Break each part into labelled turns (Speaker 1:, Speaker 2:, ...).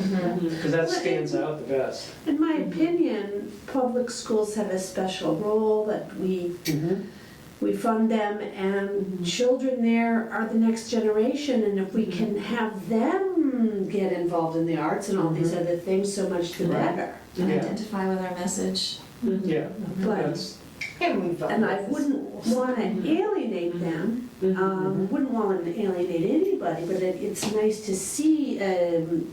Speaker 1: because that stands out the best.
Speaker 2: In my opinion, public schools have a special role that we, Mm-hmm. we fund them and children there are the next generation and if we can have them get involved in the arts and all these other things, so much the
Speaker 1: Right.
Speaker 2: better.
Speaker 3: and
Speaker 1: Yeah.
Speaker 3: identify with our message.
Speaker 1: Yeah,
Speaker 2: But,
Speaker 1: that's,
Speaker 4: And we've.
Speaker 2: and I wouldn't wanna alienate them, um, wouldn't wanna alienate anybody, but it, it's nice to see, um,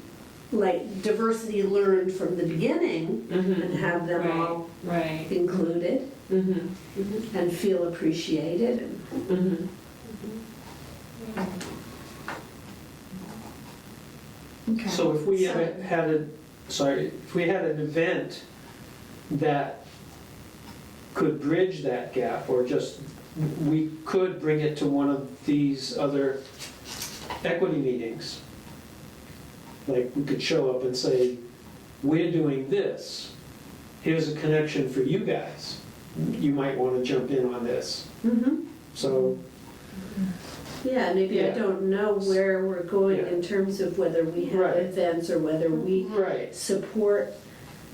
Speaker 2: like diversity learned from the beginning and have them all
Speaker 4: Mm-hmm. Right.
Speaker 2: included.
Speaker 4: Mm-hmm.
Speaker 2: and feel appreciated. and-
Speaker 4: Mm-hmm.
Speaker 3: Okay.
Speaker 1: so if we
Speaker 3: So-
Speaker 1: had a- had a, sorry, if we had an event that could bridge that gap, or just, we could bring it to one of these other equity meetings. Like, we could show up and say, we're doing this, here's a connection for you guys, you might want to jump in on this. So,
Speaker 2: Yeah, maybe I
Speaker 1: Yeah.
Speaker 2: don't know where we're going
Speaker 1: Yeah.
Speaker 2: in terms of whether we have
Speaker 1: Right.
Speaker 2: events or whether we
Speaker 1: right,
Speaker 2: support.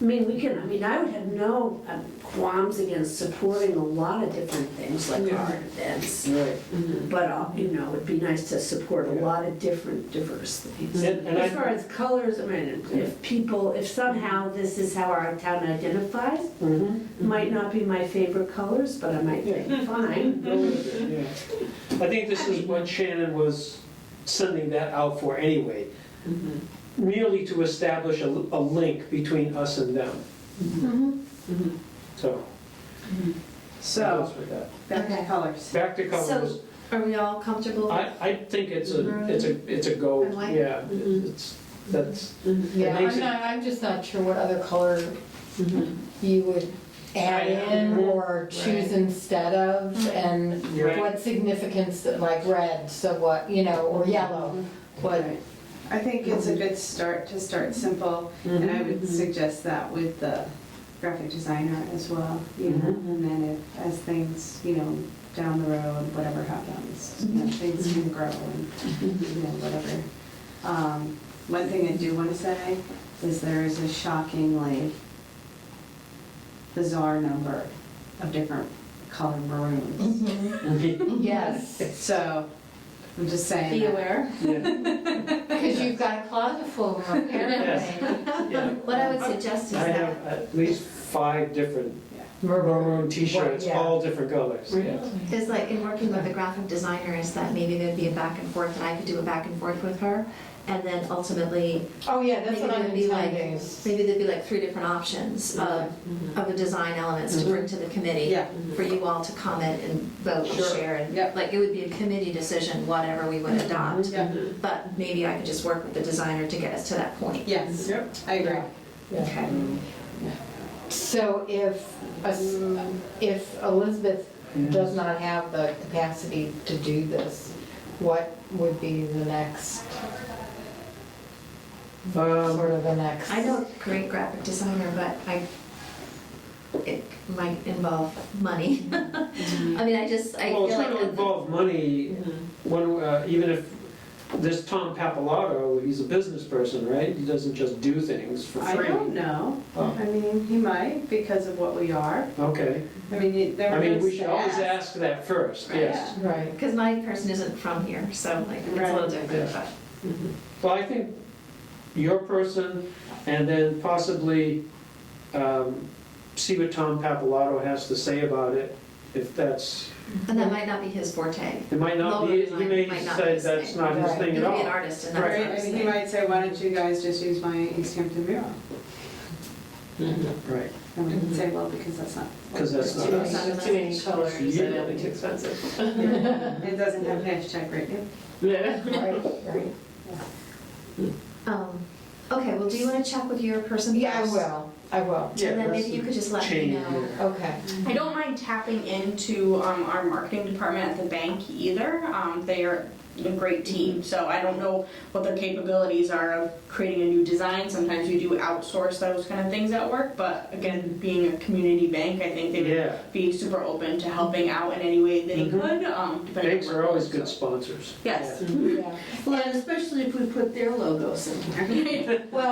Speaker 2: I mean, we can, I mean, I would have no um, qualms against supporting a lot of different things like
Speaker 4: Yeah.
Speaker 2: art events.
Speaker 1: right.
Speaker 4: Mm-hmm.
Speaker 2: But, uh, you know, it'd be nice to support a
Speaker 1: Yeah.
Speaker 2: lot of different diverse things.
Speaker 1: And and
Speaker 2: As far
Speaker 1: I,
Speaker 2: as colors, I mean,
Speaker 1: Yeah.
Speaker 2: if people, if somehow this is how our town identifies,
Speaker 1: Mhm.
Speaker 2: might not be my favorite colors, but I might think, fine.
Speaker 1: Go with it, yeah. I think this is what Shannon was sending that out for anyway, merely to establish a, a link between us and them,
Speaker 3: Mm-hmm.
Speaker 1: so. that
Speaker 5: So,
Speaker 1: was with that.
Speaker 5: back to
Speaker 3: Okay.
Speaker 5: colors.
Speaker 1: Back to colors,
Speaker 3: Are we all comfortable?
Speaker 1: I, I think it's a, it's a, it's a go,
Speaker 3: I like it. Mm-hmm.
Speaker 1: yeah, it's, that's,
Speaker 6: Yeah,
Speaker 1: makes
Speaker 6: I'm
Speaker 1: it-
Speaker 6: not, I'm just not sure what other color
Speaker 4: Mm-hmm.
Speaker 6: you would
Speaker 1: Add
Speaker 6: add in
Speaker 1: in.
Speaker 6: or choose
Speaker 3: Right.
Speaker 6: instead of,
Speaker 3: Right.
Speaker 6: and
Speaker 1: Right.
Speaker 6: what significance, like red, so what, you know, or yellow,
Speaker 3: Mm-hmm.
Speaker 6: what,
Speaker 5: I think it's a good start to start simple, and I
Speaker 3: Mm-hmm.
Speaker 5: would suggest that with the graphic designer as well, you know,
Speaker 3: Mm-hmm.
Speaker 5: and then if, as things, you know, down the road, whatever happens, you
Speaker 3: Mm-hmm.
Speaker 5: know, things can grow and, you know, whatever. Um, One thing I do want to say is there is a shockingly bizarre number of different color
Speaker 3: Mm-hmm.
Speaker 5: maroons.
Speaker 6: yes.
Speaker 5: So, I'm just saying.
Speaker 3: Be
Speaker 5: that.
Speaker 3: aware.
Speaker 1: yeah,
Speaker 6: Because you've got a closet full of them, apparently.
Speaker 1: yeah.
Speaker 3: What I would suggest is
Speaker 1: I have
Speaker 3: that,
Speaker 1: at least five different
Speaker 6: Maroon.
Speaker 1: Maroon t-shirts,
Speaker 6: Yeah.
Speaker 1: all different colors, yeah.
Speaker 3: is like in working with the graphic designer, is that maybe there'd be a back and forth, and I could do a back and forth with her. And then ultimately,
Speaker 6: Oh, yeah, that's
Speaker 3: maybe
Speaker 6: what I'm
Speaker 3: there'd be like,
Speaker 6: intending.
Speaker 3: maybe there'd be like three different options of, of the design elements to bring to the committee.
Speaker 5: Yeah.
Speaker 3: For you all to comment and vote and
Speaker 5: Sure.
Speaker 3: share. and
Speaker 5: Yep.
Speaker 3: Like, it would be a committee decision, whatever we would adopt.
Speaker 5: Yeah.
Speaker 3: But maybe I could just work with the designer to get us to that point.
Speaker 5: Yes,
Speaker 1: Yep.
Speaker 5: I agree.
Speaker 3: Okay.
Speaker 6: So if, a- if Elizabeth does not have the capacity to do this, what would be the next,
Speaker 1: Um,
Speaker 6: sort of the next?
Speaker 3: I know a great graphic designer, but I, it might involve money.
Speaker 6: Mm-hmm.
Speaker 3: I mean, I just, I
Speaker 1: Well,
Speaker 3: feel
Speaker 1: it's
Speaker 3: like.
Speaker 1: going to involve money, when, uh, even if, this Tom Papalato, he's a business person, right? He doesn't just do things for
Speaker 5: I
Speaker 1: free.
Speaker 5: don't know.
Speaker 1: Oh.
Speaker 5: I mean, he might because of what we are.
Speaker 1: Okay,
Speaker 5: I mean, you- there
Speaker 1: I mean, we
Speaker 5: was
Speaker 1: should always
Speaker 5: that.
Speaker 1: ask that first,
Speaker 3: Right.
Speaker 1: yes.
Speaker 6: Right.
Speaker 3: Because my person isn't from here, so like, it's a little
Speaker 5: Right.
Speaker 3: different, but.
Speaker 1: Well, I think your person, and then possibly um, see what Tom Papalato has to say about it, if that's,
Speaker 3: And that might not be his forte.
Speaker 1: it might not
Speaker 3: Lower
Speaker 1: be, he
Speaker 3: design
Speaker 1: may
Speaker 3: might not be
Speaker 1: say
Speaker 3: his
Speaker 1: that's
Speaker 3: thing.
Speaker 1: not his
Speaker 6: Right.
Speaker 1: thing
Speaker 3: He
Speaker 1: at
Speaker 3: could be an
Speaker 1: all.
Speaker 3: artist and
Speaker 5: Right,
Speaker 3: that's
Speaker 5: I
Speaker 3: his
Speaker 5: mean, he
Speaker 3: thing.
Speaker 5: might say, why don't you guys just use my East Hampton mural?
Speaker 1: Right,
Speaker 5: And we can say, well, because that's not,
Speaker 1: because that's not
Speaker 3: Too
Speaker 1: us.
Speaker 3: many-
Speaker 4: Too many colors, and it'll be too expensive.
Speaker 5: it doesn't have hashtag rating.
Speaker 4: Yeah.
Speaker 6: Right, right.
Speaker 3: Um, Okay, well, do you want to check with your person first?
Speaker 6: Yeah, I will, I will,
Speaker 1: Yeah,
Speaker 3: And then
Speaker 1: that's
Speaker 3: maybe you could just let me
Speaker 1: change
Speaker 3: know.
Speaker 1: there.
Speaker 6: okay.
Speaker 7: I don't mind tapping into um, our marketing department at the bank either. Um, they are a great team, so I don't know what their capabilities are of creating a new design. Sometimes we do outsource those kind of things at work, but again, being a community bank, I think they would
Speaker 1: Yeah,
Speaker 7: be super open to helping out in any way they
Speaker 1: Mhm.
Speaker 7: could. Um, depending
Speaker 1: banks
Speaker 7: on
Speaker 1: are
Speaker 7: workload,
Speaker 1: always good
Speaker 7: so.
Speaker 1: sponsors.
Speaker 7: Yes.
Speaker 6: Yeah.
Speaker 2: Well, and especially if we put their logos in there.